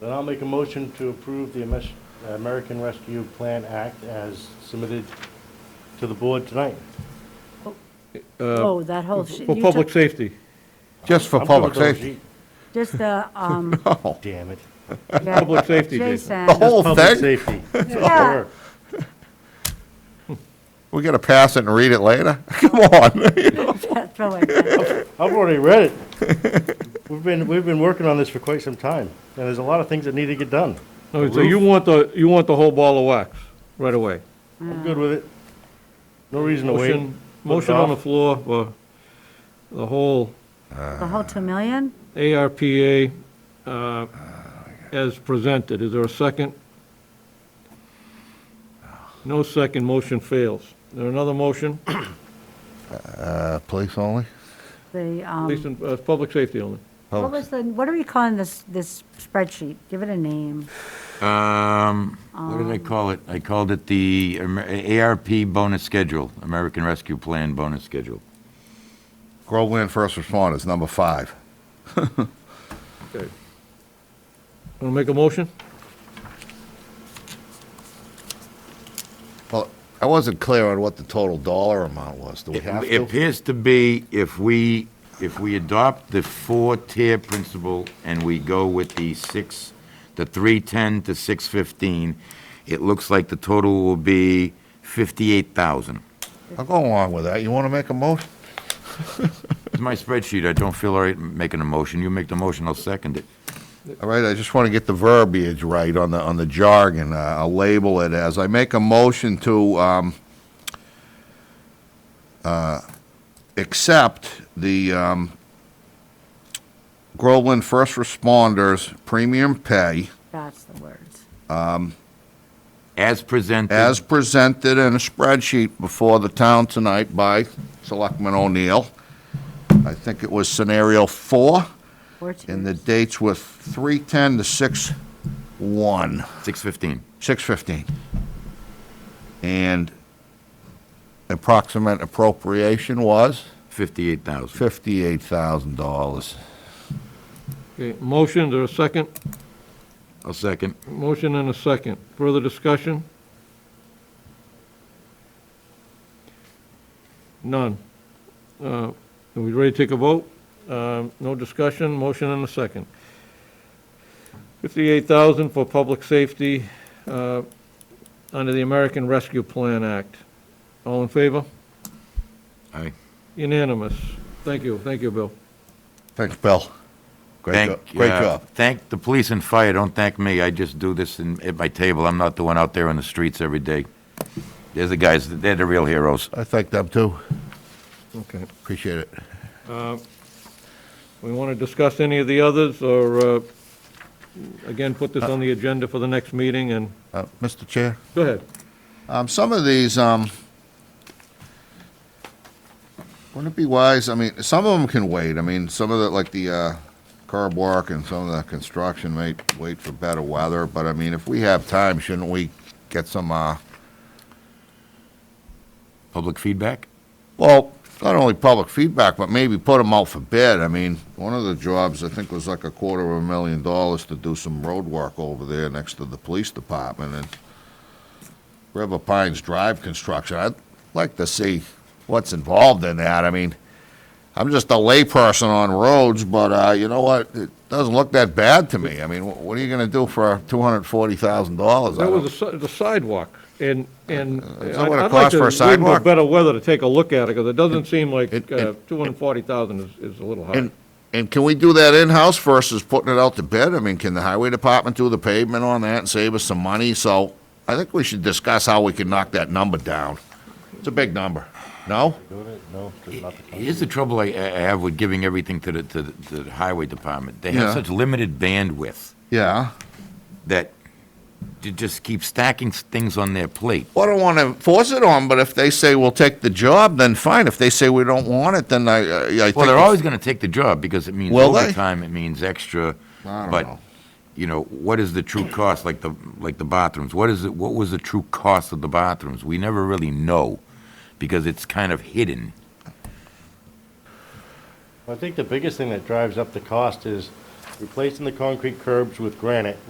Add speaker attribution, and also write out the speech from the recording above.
Speaker 1: Then I'll make a motion to approve the Ames- American Rescue Plan Act as submitted to the board tonight.
Speaker 2: Oh, that whole shit.
Speaker 3: Uh, For
Speaker 2: You
Speaker 3: public
Speaker 2: took-
Speaker 3: safety.
Speaker 4: Just for
Speaker 1: I'm
Speaker 4: public
Speaker 1: good with those,
Speaker 4: safety.
Speaker 2: Just the, um,
Speaker 4: Oh,
Speaker 1: Damn it.
Speaker 2: yeah,
Speaker 3: Public safety,
Speaker 2: Jason.
Speaker 3: Jason.
Speaker 4: The whole
Speaker 1: Public
Speaker 4: thing?
Speaker 1: safety. It's all
Speaker 2: Yeah.
Speaker 1: work.
Speaker 4: We gotta pass it and read it later? Come on.
Speaker 2: Throw it back.
Speaker 1: I've already read it. We've been, we've been working on this for quite some time, and there's a lot of things that need to get done.
Speaker 3: No, So you want the, you want the whole ball of wax right away.
Speaker 1: I'm good with it. No reason to wait.
Speaker 3: Motion, motion on the floor for the whole
Speaker 2: The whole two million?
Speaker 3: ARPA uh, as presented. Is there a second? No second, motion fails. Is there another motion?
Speaker 4: Uh, police only?
Speaker 2: The,
Speaker 3: At least
Speaker 2: um,
Speaker 3: in, uh, public safety only.
Speaker 2: what was the, what are we calling this, this spreadsheet? Give it a name.
Speaker 5: Um, what did I call it? I called it the Amer- ARP bonus schedule, American Rescue Plan bonus schedule.
Speaker 4: Groveland First Responders, number five.
Speaker 3: Okay. Want to make a motion?
Speaker 4: Well, I wasn't clear on what the total dollar amount was. Do we
Speaker 5: It
Speaker 4: have
Speaker 5: it
Speaker 4: to?
Speaker 5: appears to be if we, if we adopt the four-tier principle and we go with the six, the 310 to 615, it looks like the total will be 58,000.
Speaker 4: I'll go along with that. You wanna make a motion?
Speaker 5: It's my spreadsheet, I don't feel all right making a motion. You make the motion, I'll second it.
Speaker 4: All right, I just want to get the verbiage right on the, on the jargon. Uh, I'll label it as, I make a motion to um, uh, accept the um, Groveland First Responders Premium Pay
Speaker 2: That's the words.
Speaker 5: As presented.
Speaker 4: as presented in a spreadsheet before the town tonight by Selectman O'Neill. I think it was scenario four,
Speaker 2: Four twos.
Speaker 4: and the dates were 310 to 6/1.
Speaker 5: 615.
Speaker 4: 615. And approximate appropriation was
Speaker 5: 58,000.
Speaker 4: $58,000.
Speaker 3: Okay, motion, is there a second?
Speaker 5: I'll second.
Speaker 3: Motion and a second. Further discussion? None. Uh, Are we ready to take a vote? Um, No discussion, motion and a second. 58,000 for public safety uh, under the American Rescue Plan Act. All in favor?
Speaker 5: Aye.
Speaker 3: Unanimous. Thank you, thank you, Bill.
Speaker 4: Thanks, Bill. Great job.
Speaker 5: Thank,
Speaker 4: Great
Speaker 5: uh,
Speaker 4: job.
Speaker 5: Thank the police and fire, don't thank me, I just do this in, at my table, I'm not the one out there on the streets every day. They're the guys, they're the real heroes.
Speaker 4: I thank them, too.
Speaker 3: Okay.
Speaker 4: Appreciate it.
Speaker 3: We want to discuss any of the others, or, uh, again, put this on the agenda for the next meeting, and,
Speaker 4: Uh, Mr. Chair?
Speaker 3: go ahead.
Speaker 4: Um, Some of these, um, wouldn't it be wise, I mean, some of them can wait. I mean, some of the, like the uh, curb work and some of the construction may wait for better weather, but I mean, if we have time, shouldn't we get some, uh,
Speaker 5: Public feedback?
Speaker 4: Well, not only public feedback, but maybe put them out for bid. I mean, one of the jobs, I think, was like a quarter of a million dollars to do some road work over there next to the police department and River Pines Drive construction. I'd like to see what's involved in that. I mean, I'm just a layperson on roads, but, uh, you know what? It doesn't look that bad to me. I mean, wh- what are you gonna do for two hundred and forty thousand dollars?
Speaker 3: That was the si- the sidewalk, and, and.
Speaker 4: Uh, Is that what it
Speaker 3: I'd- I'd like
Speaker 4: costs
Speaker 3: to
Speaker 4: for a
Speaker 3: wait
Speaker 4: sidewalk?
Speaker 3: Better weather to take a look at it, because it doesn't seem like
Speaker 4: it-
Speaker 3: uh, 240,000 is, is a little high.
Speaker 4: And, and can we do that in-house versus putting it out to bid? I mean, can the highway department do the pavement on that and save us some money? So I think we should discuss how we can knock that number down. It's a big number. No?
Speaker 1: Doing it? No, just not the time.
Speaker 5: Here's the trouble I, I have with giving everything to the, to the, to the highway department. They have
Speaker 4: Yeah.
Speaker 5: such limited bandwidth
Speaker 4: Yeah.
Speaker 5: that you just keep stacking s- things on their plate.
Speaker 4: Well, I don't want to force it on, but if they say we'll take the job, then fine. If they say we don't want it, then I, I I think.
Speaker 5: Well, they're
Speaker 4: it's-
Speaker 5: always gonna take the job, because it means
Speaker 4: Will they?
Speaker 5: overtime, it means extra.
Speaker 4: I don't
Speaker 5: But,
Speaker 4: know.
Speaker 5: you know, what is the true cost, like the, like the bathrooms? What is it, what was the true cost of the bathrooms? We never really know, because it's kind of hidden.
Speaker 1: I think the biggest thing that drives up the cost is replacing the concrete curbs with granite